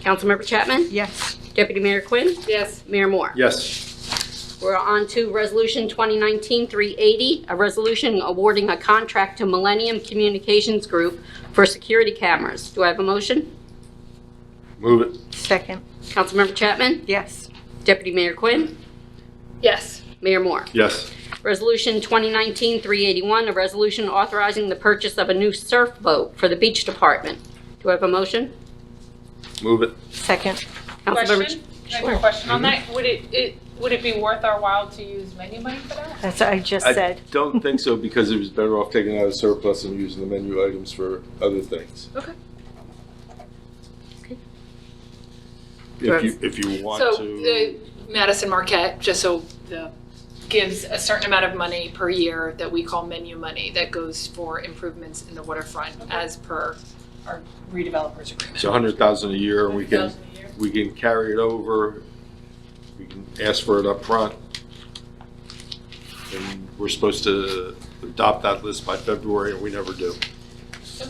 Councilmember Chapman? Yes. Deputy Mayor Quinn? Yes. Mayor Moore? Yes. We're on to Resolution 2019-380, a resolution awarding a contract to Millennium Communications Group for security cameras. Do I have a motion? Move it. Second. Councilmember Chapman? Yes. Deputy Mayor Quinn? Yes. Mayor Moore? Yes. Resolution 2019-381, a resolution authorizing the purchase of a new surf boat for the beach department. Do I have a motion? Move it. Second. Councilmember- Question? Can I have a question on that? Would it, it, would it be worth our while to use menu money for that? That's what I just I said. don't think so because it was better off taking out a surplus and using the menu items for other things. Okay. If you, if you want So to. uh, Madison Marquette, just so the, gives a certain amount of money per year that we call menu money that goes for improvements in the waterfront as per our redevelopers agreement. It's a hundred thousand a year and we can, $100,000 a year. we can carry it over. We can ask for it up front, And we're supposed to adopt that list by February and we never do.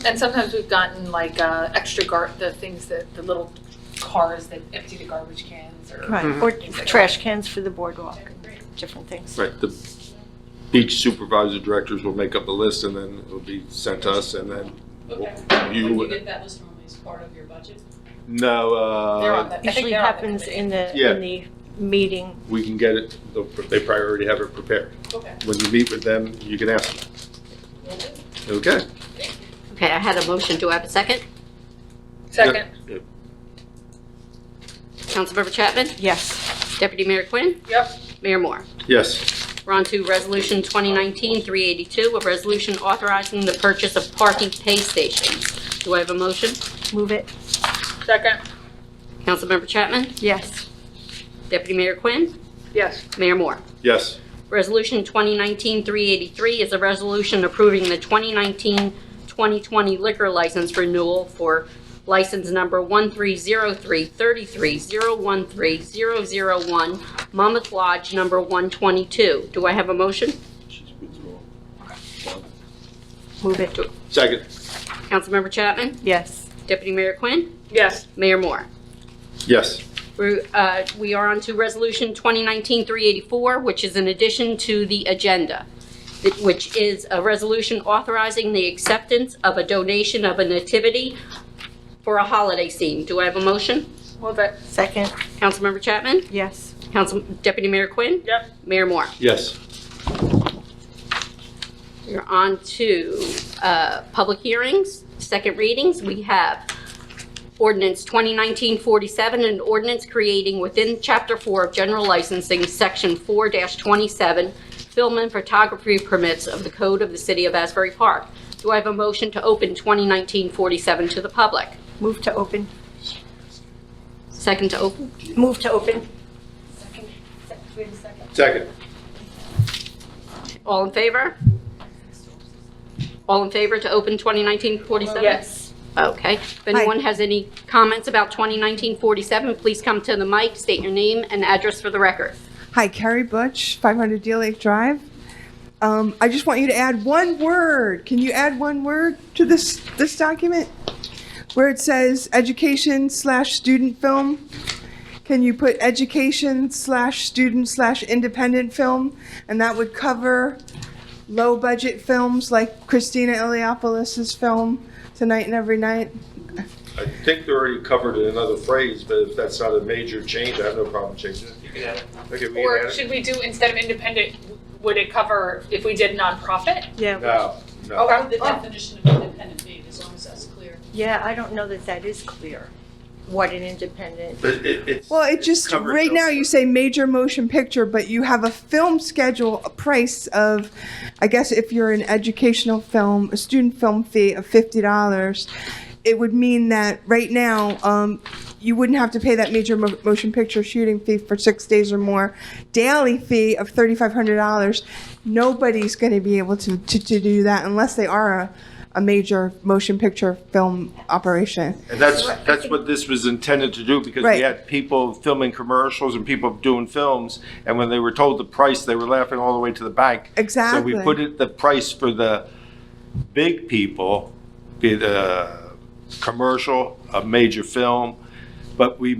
And sometimes we've gotten like uh, extra gar, the things that, the little cars that empty the garbage cans or. Mm-hmm. Right. Or trash cans for the boardwalk, different things. Right, the beach supervisor directors will make up a list and then it'll be sent to us and then Okay. you When you would- get that list normally as part of your budget? No, They're on uh, the- I think Usually they're on the happens committee. in the, Yeah. in the meeting. we can get it, they'll- they probably already have it prepared. Okay. When you meet with them, you can ask them. Will do. Okay? Okay, I had a motion. Do I have a second? Second, Councilmember Chapman? Yes. Deputy Mayor Quinn? yep. Mayor Moore? Yes. We're on to Resolution 2019-382, a resolution authorizing the purchase of parking pay stations. Do I have a motion? Move it. Second, Councilmember Chapman? Yes. Deputy Mayor Quinn? yes. Mayor Moore? Yes. Resolution 2019-383 is a resolution approving the 2019-2020 liquor license renewal for license number 1303-33013001, Monmouth Lodge number 122. Do I have a motion? Move it. Second. Councilmember Chapman? Yes. Deputy Mayor Quinn? Yes. Mayor Moore? Yes. We're, uh, We are on to Resolution 2019-384, which is in addition to the agenda, th- which is a resolution authorizing the acceptance of a donation of a nativity for a holiday scene. Do I have a motion? Move it. Second. Councilmember Chapman? Yes. Council Deputy Mayor Quinn? Yep. Mayor Moore? Yes. We're on to uh, public hearings, second readings. We have ordinance 2019-47, an ordinance creating within Chapter 4 of General Licensing, Section 4-27, film and photography permits of the Code of the City of Asbury Park. Do I have a motion to open 2019-47 to the public? Move to open. Second to open? Move to open. Second. All in favor? All in favor to open 2019-47? Yes. Okay. If anyone has any comments about 2019-47, please come to the mic, state your name and address for the record. Hi, Carrie Butch, 500 Deal Lake Drive. Um, I just want you to add one word. Can you add one word to this this document where it says education slash student film? Can you put education slash student slash independent film, and that would cover low budget films like Christina Iliopolis's film Tonight and Every Night? I think they're already covered in another phrase, but if that's not a major change, I have no problem changing it. You can add it. Okay, we Or can should we do, instead of independent, would it cover if we did nonprofit? add it. Yeah. No, no. Okay. The definition of independent aid, as long as that's clear. Yeah, I don't know that that is clear. What an independent. But it, it's. Well, it it's just, covered right now, elsewhere. you say major motion picture, but you have a film schedule, a price of, I guess if you're an educational film, a student film fee of fifty dollars, it would mean that right now, um, you wouldn't have to pay that major mo- motion picture shooting fee for six days or more, daily fee of thirty-five hundred dollars. Nobody's gonna be able to, to, to do that unless they are a, a major motion picture film operation. And that's, that's what this was intended to do, because we Right. had people filming commercials and people doing films, and when they were told the price, they were laughing all the way to the bank. So we Exactly. put it, the price for the big people, be it a commercial, a major film, but we